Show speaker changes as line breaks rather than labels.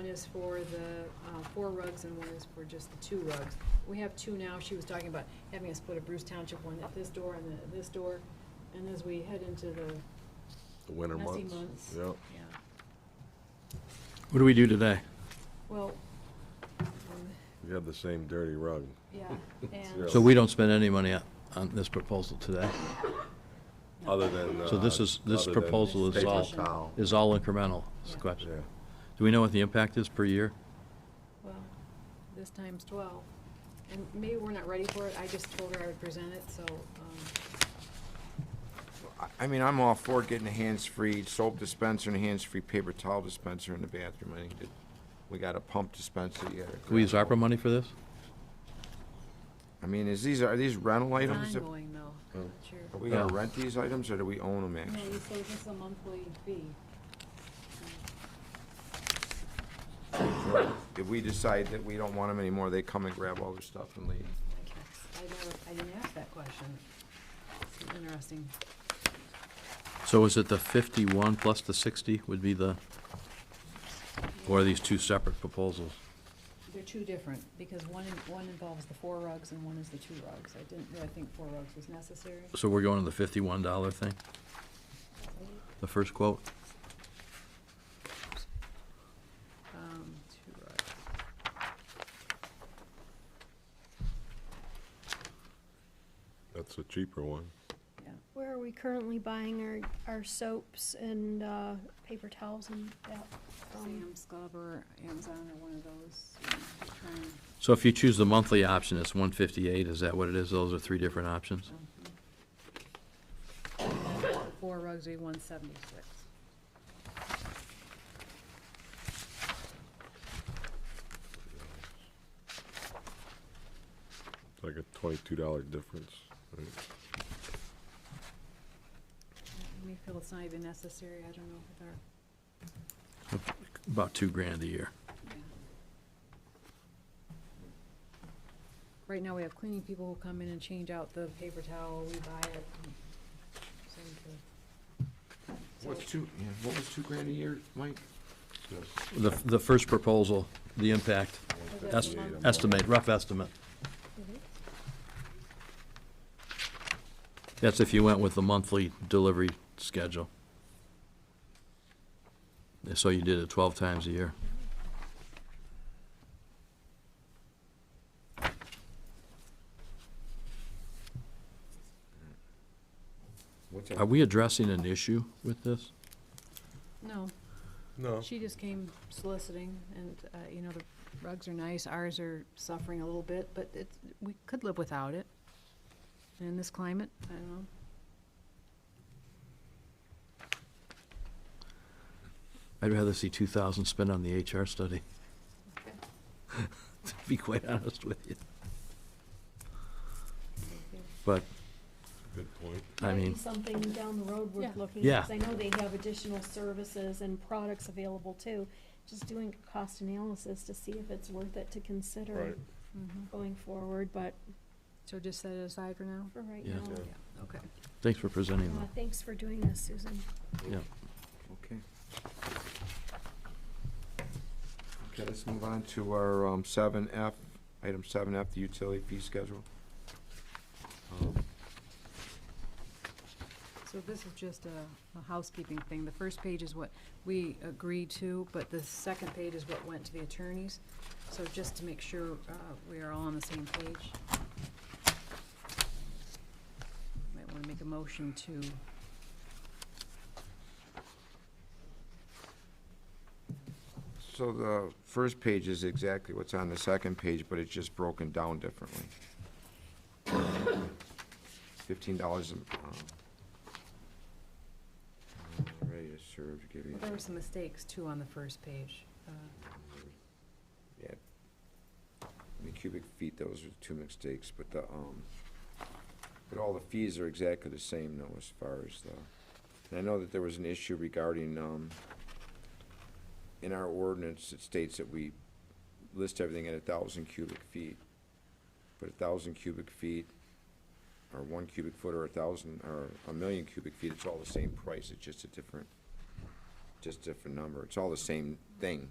is for the uh, four rugs and one is for just the two rugs. We have two now. She was talking about having a split of Bruce Township, one at this door and then at this door. And as we head into the
The winter
messy
months.
months.
Yep.
Yeah.
What do we do today?
Well, um,
You have the same dirty rug.
yeah,
Yeah.
and.
So we don't spend any money on- on this proposal today?
Other than.
So this
uh,
is- this
other than
proposal
is
paper
all-
towel.
Is all incremental, is the
Yeah.
question.
Yeah.
Do we know what the impact is per year?
Well, this time's twelve. And maybe we're not ready for it. I just told her I would present it, so, um,
I- I mean, I'm all for getting a hands-free soap dispenser and a hands-free paper towel dispenser in the bathroom. I think that we got a pump dispenser. you gotta
Can we use
grab
ARPA
one.
money for this?
I mean, is these, are these rental items?
it's
that-
ongoing though. I'm not sure.
Are we gonna
Yeah.
rent these items or do we own them
No,
actually?
you say this is a monthly fee.
If we decide that we don't want them anymore, they come and grab all their stuff and leave.
I guess. I never, I didn't ask that question. It's Interesting.
So is it the 51 plus the 60 would be the, or are these two separate proposals?
They're two different, because one, in- one involves the four rugs and one is the two rugs. I didn't really think four rugs was necessary.
So we're going to the $51 thing, the first quote?
Um, two rugs.
That's a cheaper one.
Yeah.
Where are we currently buying our, our soaps and, uh, paper towels and that from?
Sam's Club or Amazon or one of those. you know, to try and-
So if you choose the monthly option, it's 158, is that what it is? Those are three different options?
Four rugs would be one seventy-six.
It's like a twenty-two dollar difference. right?
We feel it's not even necessary, I don't know if our,
About two grand a year.
yeah. Right now, we have cleaning people who come in and change out the paper towel, we buy it. and send to- So,
What's two, yeah, what was two grand a year, Mike?
The, the first proposal, the impact,
is that
that's
the month?
estimate, rough estimate. That's if you went with the monthly delivery schedule. And So you did it twelve times a year.
What's
Are we addressing an issue with this?
No,
No.
she just came soliciting, and, uh, you know, the rugs are nice, ours are suffering a little bit, but it's, we could live without it. In this climate, I don't know.
I'd rather see two thousand spent on the HR study. To be quite honest with you, but,
Good point.
I
Might be
mean,
Something down the road
Yeah.
worth looking
Yeah.
at, 'cause I know they have additional services and products available too. Just doing a cost analysis to see if it's worth it to consider
Right.
Mhm.
going forward, but
So just set it aside for now?
for right
Yeah.
now.
Yeah.
Okay.
thanks for presenting
Uh,
though.
thanks for doing this, Susan.
Yeah,
Okay. Okay, let's move on to our um, 7F, item 7F, the utility fee schedule. Um,
So this is just a, a housekeeping thing. The first page is what we agreed to, but the second page is what went to the attorneys. So just to make sure, uh, we are all on the same page. Might wanna make a motion to,
So the first page is exactly what's on the second page, but it's just broken down differently. Fifteen dollars. uh, Ready to serve, give you.
there were some mistakes too on the first page. Uh,
Yeah. I mean, cubic feet, those are two mistakes, but the, um, but all the fees are exactly the same though, as far as the, and I know that there was an issue regarding, um, in our ordinance, it states that we list everything at a thousand cubic feet. But a thousand cubic feet, or one cubic foot, or a thousand, or a million cubic feet, it's all the same price, it's just a different, just different number, it's all the same thing.